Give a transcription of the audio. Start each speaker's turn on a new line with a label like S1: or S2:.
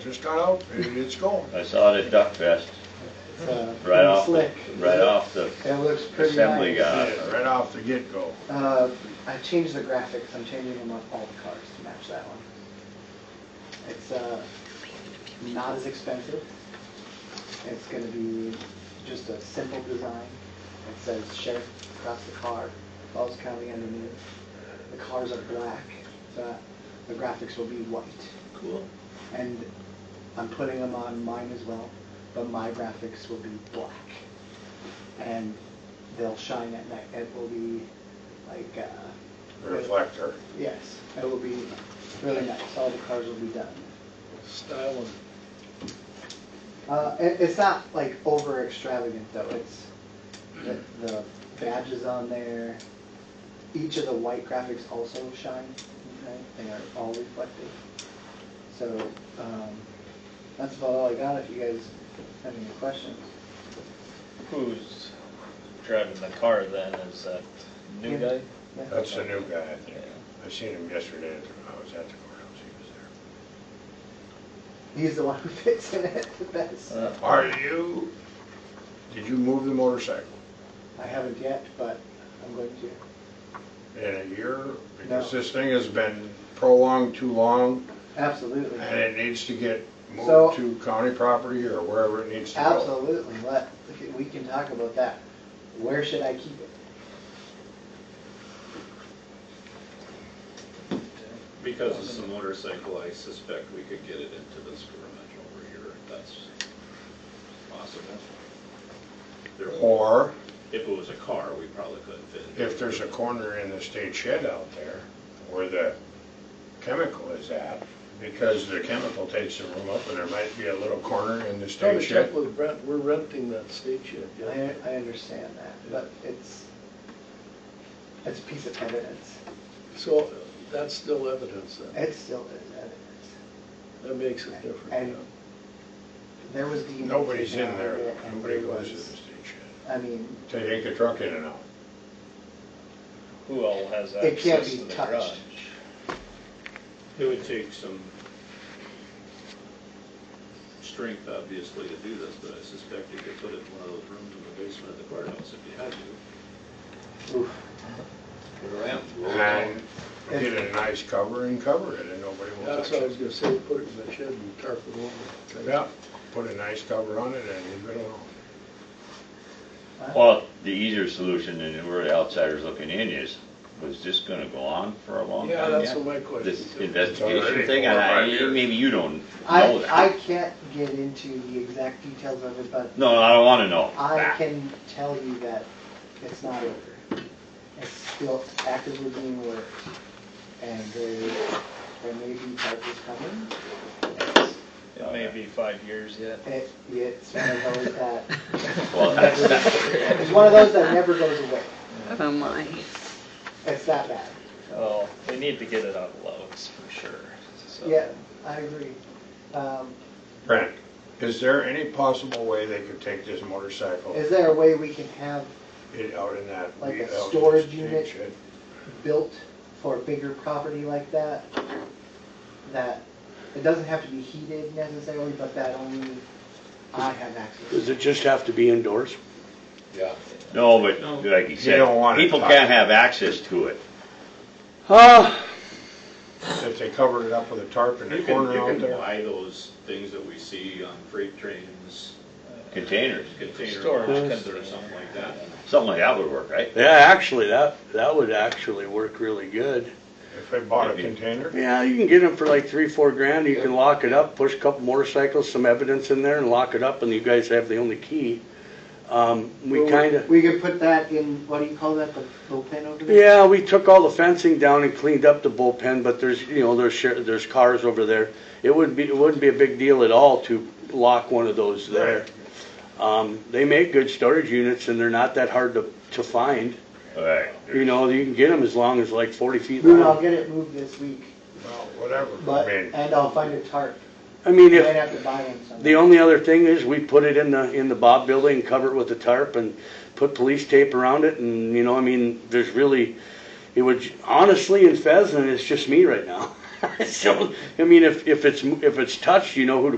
S1: Just got out, and it's going.
S2: I saw it at Duck Fest,
S3: uh,
S2: right off, the-
S3: slick.
S2: right off the
S3: It looks pretty
S2: assembly
S3: nice.
S2: guy.
S1: Yeah, Right off the get-go.
S3: Uh, I changed the graphics, I'm changing them on all the cars to match that one. It's, uh, not as expensive. It's gonna be just a simple design. It says sheriff across the car, Falls County underneath. The cars are black, so the graphics will be white.
S2: Cool.
S3: And I'm putting them on mine as well, but my graphics will be black. And they'll shine at night. It will be like, uh.
S1: Reflector.
S3: Yes, it will be really nice. All the cars will be done.
S4: Style and
S3: Uh, it, it's not like over extravagant though. It's the, the badges on there. Each of the white graphics also shine. Okay? They are all reflective. So um, that's about all I got. If you guys have any questions,
S4: who's driving the car then? Is that new
S3: Yeah.
S4: guy?
S3: yeah.
S1: That's the new guy, I think. I seen him yesterday, at the- I was at the courthouse, he was there.
S3: he's the one who fits in it the best.
S4: Uh,
S1: Are you, did you move the motorcycle
S3: I haven't yet, but I'm going to.
S1: in a year? Because
S3: No.
S1: this thing has been prolonged too long,
S3: Absolutely.
S1: and it needs to get
S3: So-
S1: moved to county property or wherever it needs to go.
S3: Absolutely, let, we can talk about that. Where should I keep it?
S5: Because it's a motorcycle, I suspect we could get it into this garage over here, if that's possible. There-
S1: Or
S5: If it was a car, we probably couldn't fit it.
S1: if there's a corner in the state shed out there where the chemical is at, because the chemical takes the room up, and there might be a little corner in the
S4: Gotta
S1: state
S4: check
S1: shed.
S4: with Brent, we're renting that state shed, yeah.
S3: I, I understand that, but it's, it's a piece of evidence.
S4: So that's still evidence then.
S3: It still is evidence.
S4: That makes it different.
S3: And
S4: yeah.
S3: there was the.
S1: Nobody's in there,
S3: and
S1: nobody
S3: there
S1: goes to the
S3: was-
S1: state shed.
S3: I mean,
S1: They take a truck in and out.
S6: Who all has
S3: it can't
S6: access to
S3: be
S6: the garage?
S3: touched.
S5: It would take some strength, obviously, to do this, but I suspect you could put it in one of those rooms in the basement of the courthouse if you had to.
S3: Oof.
S5: Put a ramp, roll it
S1: And
S5: down.
S1: get a nice cover and cover it, and nobody will
S4: That's
S1: touch
S4: what I was
S1: it.
S4: gonna say, put it in the shed and tarp it over.
S1: Yeah, put a nice cover on it and leave it alone.
S2: Well, the easier solution, and we're the outsiders looking in, is, was this gonna go on for a long time?
S4: Yeah, that's
S2: yet?
S4: what my question
S2: This
S4: is.
S1: It's already
S2: investigation thing,
S1: four or
S2: I,
S1: five years.
S2: maybe you don't know
S3: I, I
S2: that.
S3: can't get into the exact details of it, but
S2: No, I don't wanna know.
S3: I
S2: Nah.
S3: can tell you that it's not over. It's still actively being worked, and there, there may be charges coming. It's-
S4: It may be five years yet.
S3: It, it's one of those that,
S2: Well, that's,
S3: it's one of those that never goes away.
S7: Oh my.
S3: It's that bad.
S6: Well, Oh, we need to get it on Lowe's for sure, so.
S3: Yeah, I agree. Um,
S1: Brent, is there any possible way they could take this motorcycle
S3: is there a way we can have
S1: it out in that?
S3: Like a
S1: out in the
S3: storage
S1: state
S3: unit?
S1: shed?
S3: built for a bigger property like that? That, it doesn't have to be heated necessarily, but that only I have access. to.
S8: Does it just have to be indoors?
S2: no, but like you said,
S1: don't want it
S2: people
S1: touched.
S2: can't have access to it.
S8: Uh,
S1: If they covered it up with a tarp in the
S5: You can,
S1: corner out
S5: you can
S1: there?
S5: buy those things that we see on freight trains,
S2: Containers,
S5: container
S4: Storage
S5: boxes
S4: container.
S5: or something like that.
S2: something like that would work, right?
S8: yeah, actually, that, that would actually work really good.
S1: If they bought a
S2: Maybe.
S1: container?
S8: Yeah, you can get them for like three, four grand, you can lock it up, push a couple motorcycles, some evidence in there and lock it up, and you guys have the only key. Um, we
S3: Well,
S8: kinda,
S3: We could put that in, what do you call that, the bullpen over there?
S8: yeah, we took all the fencing down and cleaned up the bullpen, but there's, you know, there's, shar- there's cars over there. It wouldn't be, it wouldn't be a big deal at all to lock one of those there. Um, they make good storage units and they're not that hard to, to find.
S2: Right.
S8: You know, you can get them as long as like forty feet
S3: Boone, I'll
S8: long.
S3: get it moved this week,
S1: Well, whatever,
S3: but,
S1: I mean.
S3: and I'll find a tarp.
S8: I mean,
S3: Might
S8: if,
S3: have to buy one somewhere.
S8: the only other thing is we put it in the, in the Bob building, cover it with a tarp and put police tape around it and, you know, I mean, there's really, it would, honestly, in Pheasant, it's just me right now. It shows- I mean, if, if it's, if it's touched, you know who to